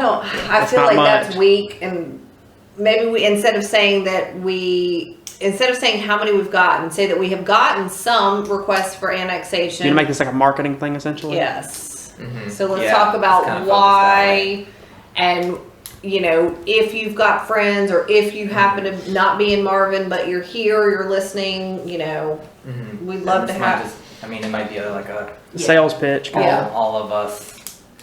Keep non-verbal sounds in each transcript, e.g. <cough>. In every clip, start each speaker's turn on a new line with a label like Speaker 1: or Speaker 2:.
Speaker 1: No, I
Speaker 2: That's
Speaker 1: feel
Speaker 2: not
Speaker 1: like that's
Speaker 2: much.
Speaker 1: weak and maybe we, instead of saying that we, instead of saying how many we've gotten, say that we have gotten some requests for annexation.
Speaker 2: You make this like a marketing thing essentially?
Speaker 1: Yes.
Speaker 3: Mhm.
Speaker 1: So let's
Speaker 3: Yeah,
Speaker 1: talk about
Speaker 3: it's kinda focused that
Speaker 1: why and you know, if you've got friends or if you happen to not be in Marvin but you're here, you're listening, you know,
Speaker 3: Mhm.
Speaker 1: We'd love
Speaker 3: And
Speaker 1: to
Speaker 3: this might
Speaker 1: have-
Speaker 3: just- I mean, it might be a- like a
Speaker 2: Sales pitch.
Speaker 3: all,
Speaker 2: kinda.
Speaker 1: Yeah.
Speaker 3: all of us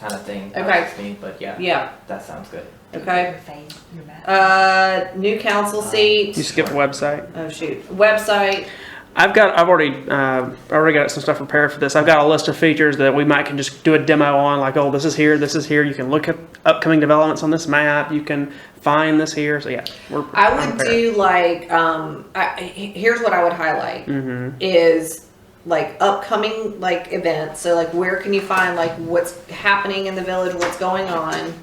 Speaker 3: kind of thing. not
Speaker 1: Okay.
Speaker 3: just me, but yeah,
Speaker 1: yeah.
Speaker 3: that sounds good.
Speaker 1: Okay.
Speaker 4: Your face, your back.
Speaker 1: Uh new council
Speaker 2: You
Speaker 1: seat.
Speaker 2: skip website.
Speaker 1: Oh shoot. Website.
Speaker 2: I've got. I've already. Uh, I already got some stuff prepared for this. I've got a list of features that we might can just do a demo on. Like, oh, this is here. This is here. You can look at upcoming developments on this map. You can find this here. So yeah, we're.
Speaker 1: I would do like um I, he- here's what I would highlight
Speaker 2: Mm-hmm.
Speaker 1: is like upcoming like events. So like where can you find like what's happening in the village, what's going on,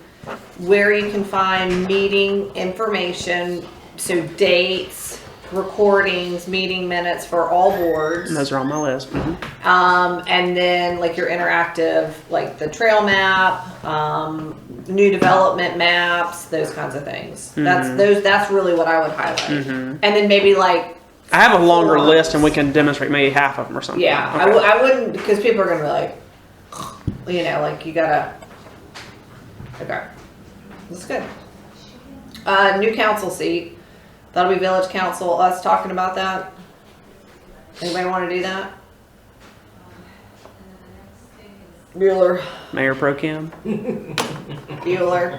Speaker 1: where you can find meeting information, so dates, recordings, meeting minutes for all boards.
Speaker 2: Those are on my list. Mhm.
Speaker 1: Um, and then like your interactive, like the trail map, um, new development maps, those kinds of things. That's those. That's really what I would highlight. And then maybe like
Speaker 2: I have a longer
Speaker 1: Forms.
Speaker 2: list, and we can demonstrate maybe half of them or something.
Speaker 1: Yeah, I
Speaker 2: Okay.
Speaker 1: w- I wouldn't because people are gonna be like, <sighs> you know, like you gotta. Okay, that's good. Uh, new council seat. That'll be village council. Us talking about that. Anybody want to do that? Bueller,
Speaker 2: Mayor Pro Kim.
Speaker 1: Bueller.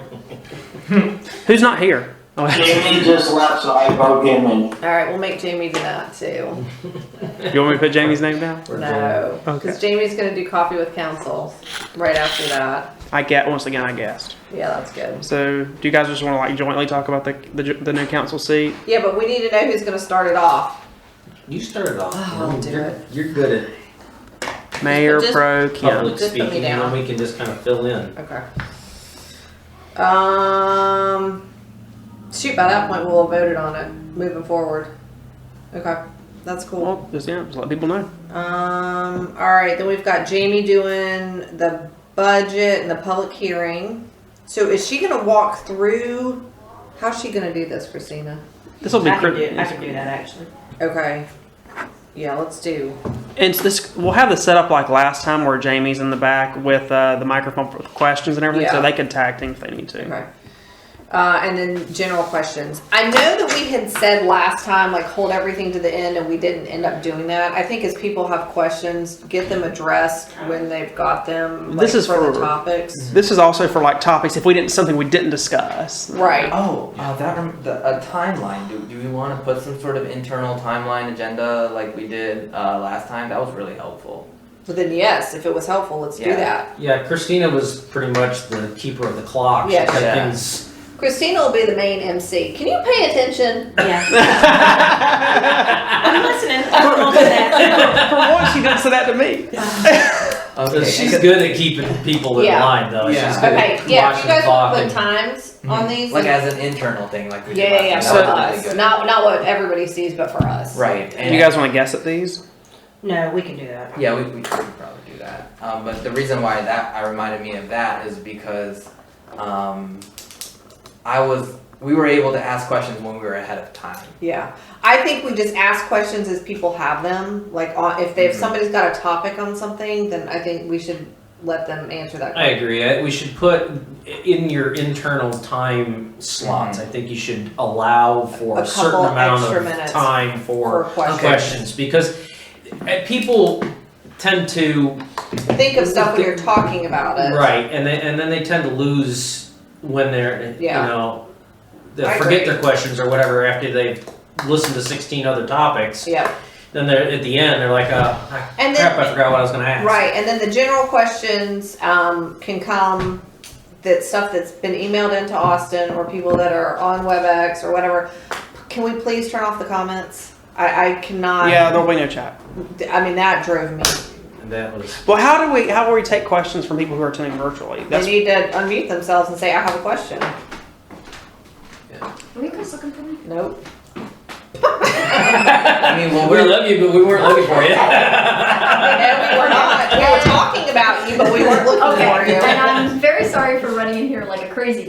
Speaker 2: Who's not here? <laughs> Oh,
Speaker 5: Jamie just left, so I broke him in.
Speaker 1: All right, we'll make Jamie do that too.
Speaker 2: you want me to put Jamie's name down?
Speaker 1: No,
Speaker 2: Okay.
Speaker 1: because Jamie's gonna do coffee with council right after that.
Speaker 2: I get once again. I guessed.
Speaker 1: Yeah, that's good.
Speaker 2: So, do you guys just want to like jointly talk about the the, ju- the new council seat?
Speaker 1: Yeah, but we need to know who's gonna start it off.
Speaker 6: You started off.
Speaker 1: Oh,
Speaker 6: you know,
Speaker 1: I'll do
Speaker 6: you're,
Speaker 1: it.
Speaker 6: you're good
Speaker 2: Mayor
Speaker 1: Just-
Speaker 2: Pro
Speaker 6: at
Speaker 2: Kim.
Speaker 3: Oh,
Speaker 6: public
Speaker 1: Just put me
Speaker 6: speaking, and
Speaker 1: down.
Speaker 6: then we can just kind of fill in.
Speaker 1: Okay. Um, shoot, by that point, we'll have voted on it moving forward. Okay, that's cool.
Speaker 2: Well, just yeah, just let people know.
Speaker 1: Um, all right, then we've got Jamie doing the budget and the public hearing. So is she gonna walk through, how's she gonna do this, Christina?
Speaker 2: This will be
Speaker 4: I can
Speaker 2: crit-
Speaker 4: do, I can do that actually.
Speaker 1: Okay, yeah, let's do,
Speaker 2: And it's this we'll have this set up like last time where Jamie's in the back with uh, the microphone for questions and everything,
Speaker 1: Yeah.
Speaker 2: so they can tag team if they need to.
Speaker 1: okay. Uh, and then general questions. I know that we had said last time, like, hold everything to the end, and we didn't end up doing that. I think as people have questions, get them addressed when they've got them. like,
Speaker 2: This is
Speaker 1: for the
Speaker 2: for-
Speaker 1: topics.
Speaker 2: This is also for like topics if we didn't something we didn't discuss. <laughs>
Speaker 1: Right.
Speaker 3: Oh, uh, that rem- the, a timeline. Do, do we want to put some sort of internal timeline agenda like we did uh, last time? That was really helpful.
Speaker 1: But then, yes, if it was helpful, let's do
Speaker 3: Yeah.
Speaker 1: that.
Speaker 6: Yeah, Christina was pretty much the keeper of the clock.
Speaker 1: Yeah,
Speaker 6: she kept
Speaker 3: yeah.
Speaker 6: things.
Speaker 1: Christina will be the main MC. Can you pay attention?
Speaker 4: <laughs> Yeah. I'm listening. I'm all to that.
Speaker 2: for once, you didn't say that to me.
Speaker 3: Okay,
Speaker 6: she's
Speaker 3: and-
Speaker 6: good at keeping people in
Speaker 1: Yeah.
Speaker 6: line, though.
Speaker 3: Yeah.
Speaker 6: She's good
Speaker 1: Okay,
Speaker 6: at
Speaker 1: yeah, if
Speaker 6: watching
Speaker 1: you guys
Speaker 6: the clock.
Speaker 1: want to put
Speaker 6: and-
Speaker 1: times on these.
Speaker 3: Mm-hmm. like
Speaker 1: and-
Speaker 3: as an internal thing, like we
Speaker 1: Yeah, yeah,
Speaker 3: did
Speaker 1: yeah,
Speaker 3: last
Speaker 1: for
Speaker 3: time. That was really
Speaker 1: us.
Speaker 3: good.
Speaker 1: Not, not what everybody sees, but for us.
Speaker 3: right. And
Speaker 2: You guys want to guess at these?
Speaker 4: No, we can do that.
Speaker 3: Yeah, we, we could probably do that. Um, but the reason why that, I reminded me of that is because, um, I was, we were able to ask questions when we were ahead of time.
Speaker 1: Yeah, I think we just ask questions as people have them. Like, on, if they, if
Speaker 3: Mhm.
Speaker 1: somebody's got a topic on something, then I think we should let them answer that.
Speaker 6: I
Speaker 1: question.
Speaker 6: agree. I- We should put in your internal time slots. I think you should allow for
Speaker 1: A
Speaker 6: a, certain
Speaker 1: couple
Speaker 6: amount
Speaker 1: extra
Speaker 6: of
Speaker 1: minutes
Speaker 6: time
Speaker 1: For
Speaker 6: for,
Speaker 1: questions.
Speaker 6: questions because uh, people tend to
Speaker 1: Think of stuff when you're talking about it.
Speaker 6: Right, and they, and then they tend to lose when they're
Speaker 1: Yeah.
Speaker 6: you know they
Speaker 1: I
Speaker 6: forget
Speaker 1: agree.
Speaker 6: their questions or whatever after they've listened to sixteen other topics.
Speaker 1: Yeah, then
Speaker 6: Then they're at the end they're like, oh ah,
Speaker 1: And
Speaker 6: crap, I
Speaker 1: then,
Speaker 6: forgot what I was gonna ask.
Speaker 1: right, and then the general questions, um, can come, that stuff that's been emailed into Austin or people that are on WebEx or whatever. Can we please turn off the comments? I, I cannot.
Speaker 2: yeah, there'll be no chat.
Speaker 1: I mean, that drove me.
Speaker 6: And that was
Speaker 2: Well, how do we how will we take questions from people who are attending virtually?
Speaker 1: They
Speaker 2: That's
Speaker 1: need to unmute themselves and say, I have a question.
Speaker 4: Were you guys looking for me?
Speaker 1: Nope.
Speaker 3: I mean, well,
Speaker 6: we
Speaker 3: we're,
Speaker 6: love you, but we weren't looking for you.
Speaker 1: No, we were not. We were talking about you, but we weren't looking for <laughs>
Speaker 7: Okay,
Speaker 1: you.
Speaker 7: and I'm very sorry for running in here like a crazy